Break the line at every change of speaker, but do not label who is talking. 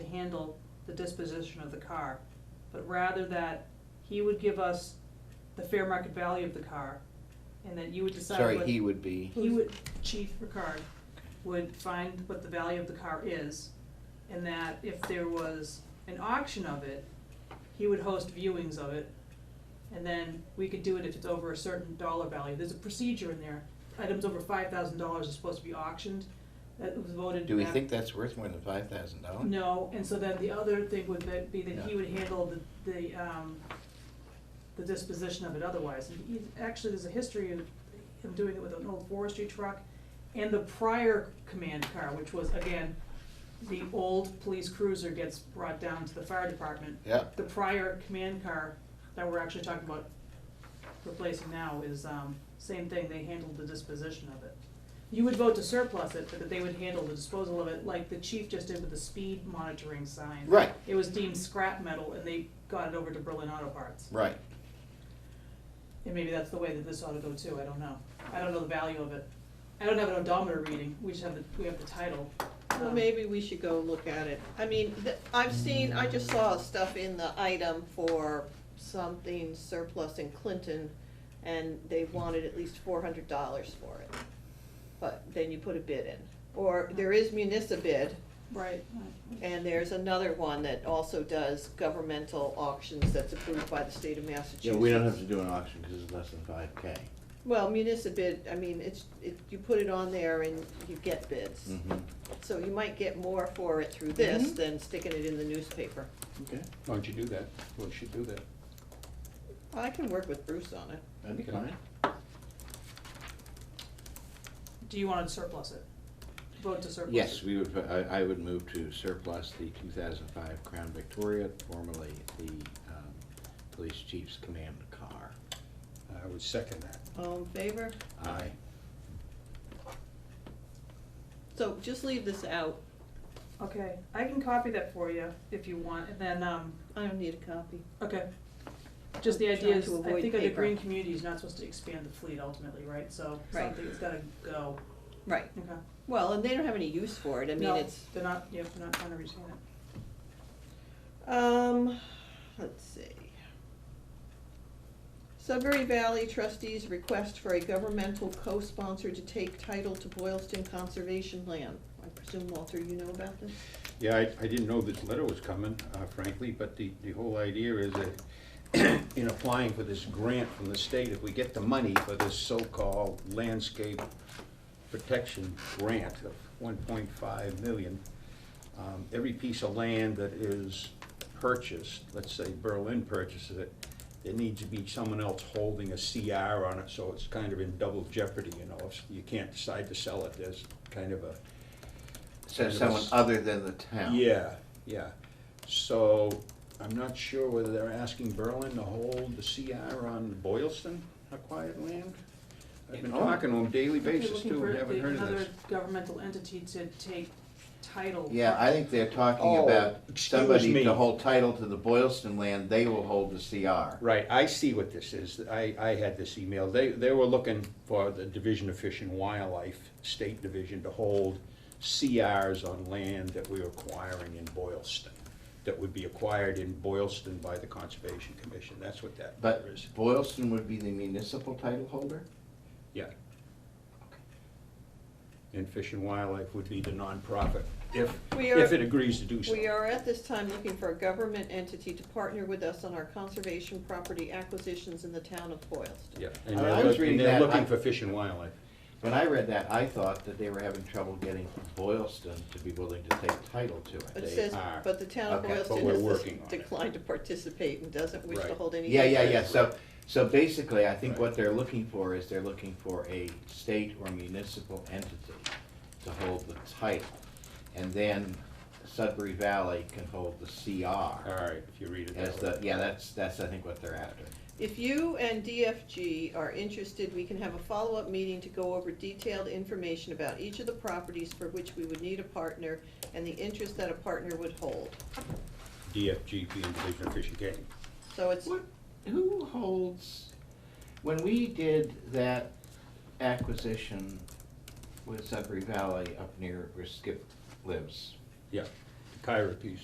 handle the disposition of the car, but rather that he would give us the fair market value of the car, and that you would decide
Sorry,
what-
he would be,
He would, Chief Ricard, would find what the value of the car is, and that if there was an auction of it, he would host viewings of it, and then we could do it if it's over a certain dollar value. There's a procedure in there. Items over five thousand dollars are supposed to be auctioned. That was voted.
do we
back-
think that's worth more than five thousand dollars?
No, and so then the other thing would that- be that he
Yeah.
would handle the, the, um, the disposition of it otherwise. And he, actually, there's a history of him doing it with an old forestry truck and the prior command car, which was, again, the old police cruiser gets brought down to the fire department.
Yep.
The prior command car that we're actually talking about replacing now is, um, same thing, they handled the disposition of it. You would vote to surplus it, but that they would handle the disposal of it, like the chief just did with the speed monitoring sign.
Right.
It was deemed scrap metal, and they got it over to Berlin Auto Parts.
Right,
And maybe that's the way that this ought to go too, I don't know. I don't know the value of it. I don't have an odometer reading, we just have the, we have the title.
Well,
Um,
maybe we should go look at it. I mean, th- I've seen, I just saw stuff in the item for something surplus in Clinton, and they wanted at least four hundred dollars for it. But then you put a bid in. Or there is municipal bid,
Right.
and there's another one that also does governmental auctions that's approved by the state of Massachusetts.
Yeah, we don't have to do an auction because it's less than five K.
Well, municipal bid, I mean, it's, it, you put it on there and you get bids.
Mm-hmm.
Mm-hmm.
So you might get more for it through this
Mhm.
than sticking it in the newspaper.
Okay,
Why don't you do that? Well, you should do that.
I can work with Bruce on it.
that's
Okay.
fine.
Do you wanna surplus it? Vote to surplus it?
Yes, we would, put- I, I would move to surplus the two thousand five Crown Victoria, formerly the, um, police chief's command car.
I would second that.
All in favor?
Uh,
Aye.
So just leave this out.
Okay, I can copy that for you if you want, and then, um,
I don't need a copy.
okay. Just the idea
Trying
is,
to
I
avoid
think under
paper.
green community is not supposed to expand the fleet ultimately, right? So
Right.
something's gotta go,
Right.
okay?
Well, and they don't have any use for it. I mean,
No,
it's,
They're not, yeah, they're not trying to retain it.
um, let's see. Sudbury Valley trustees request for a governmental co-sponsor to take title to Boylston Conservation Land. I presume, Walter, you know about this?
Yeah, I, I didn't know this letter was coming, uh, frankly, but the, the whole idea is that in applying for this grant from the state, if we get the money for this so-called landscape protection grant of one point five million, um, every piece of land that is purchased, let's say Berlin purchases it, there needs to be someone else holding a CR on it, so it's kind of in double jeopardy, you know, if you can't decide to sell it, there's kind of a
so
Yes.
someone other than the town.
yeah, yeah. So I'm not sure whether they're asking Berlin to hold the CR on Boylston acquired land. I've been
Oh.
talking to them daily basis
Looking
too,
for
and haven't
the-
heard of this.
Another governmental entity to take title.
Yeah, I think they're talking
Oh,
about
excuse
somebody
me.
to hold title to the Boylston land, they will hold the CR.
Right, I see what this is. I, I had this email. They, they were looking for the Division of Fish and Wildlife, State Division, to hold CRs on land that we are acquiring in Boylston, that would be acquired in Boylston by the Conservation Commission. That's what that
But
is.
Boylston would be the municipal title holder?
Yeah. And Fish and Wildlife would be the nonprofit, if,
We are-
if it agrees to do so.
We are at this time looking for a government entity to partner with us on our conservation property acquisitions in the town of Boylston.
Yeah,
I-
and
I
they're,
was
look-
reading
and they're
that, I-
looking for Fish and Wildlife.
When I read that, I thought that they were having trouble getting Boylston to be willing to take title to
It
it.
says,
are.
but the town of
Okay, but
Boylston
we're
has
working on
dis-
it.
declined to participate and doesn't wish to
Right.
hold any.
Yeah, yeah, yeah, so, so basically, I think
Right.
what they're looking for is they're looking for a state or municipal entity to hold the title. And then Sudbury Valley can hold the CR.
All right, if you read it
As
that
the,
way.
yeah, that's, that's, I think, what they're after.
If you and DFG are interested, we can have a follow-up meeting to go over detailed information about each of the properties for which we would need a partner and the interest that a partner would hold.
DFG being Division of Fish and Game.
So it's,
What, who holds, when we did that acquisition with Sudbury Valley up near where Skip lives,
Yeah, the Kyra piece.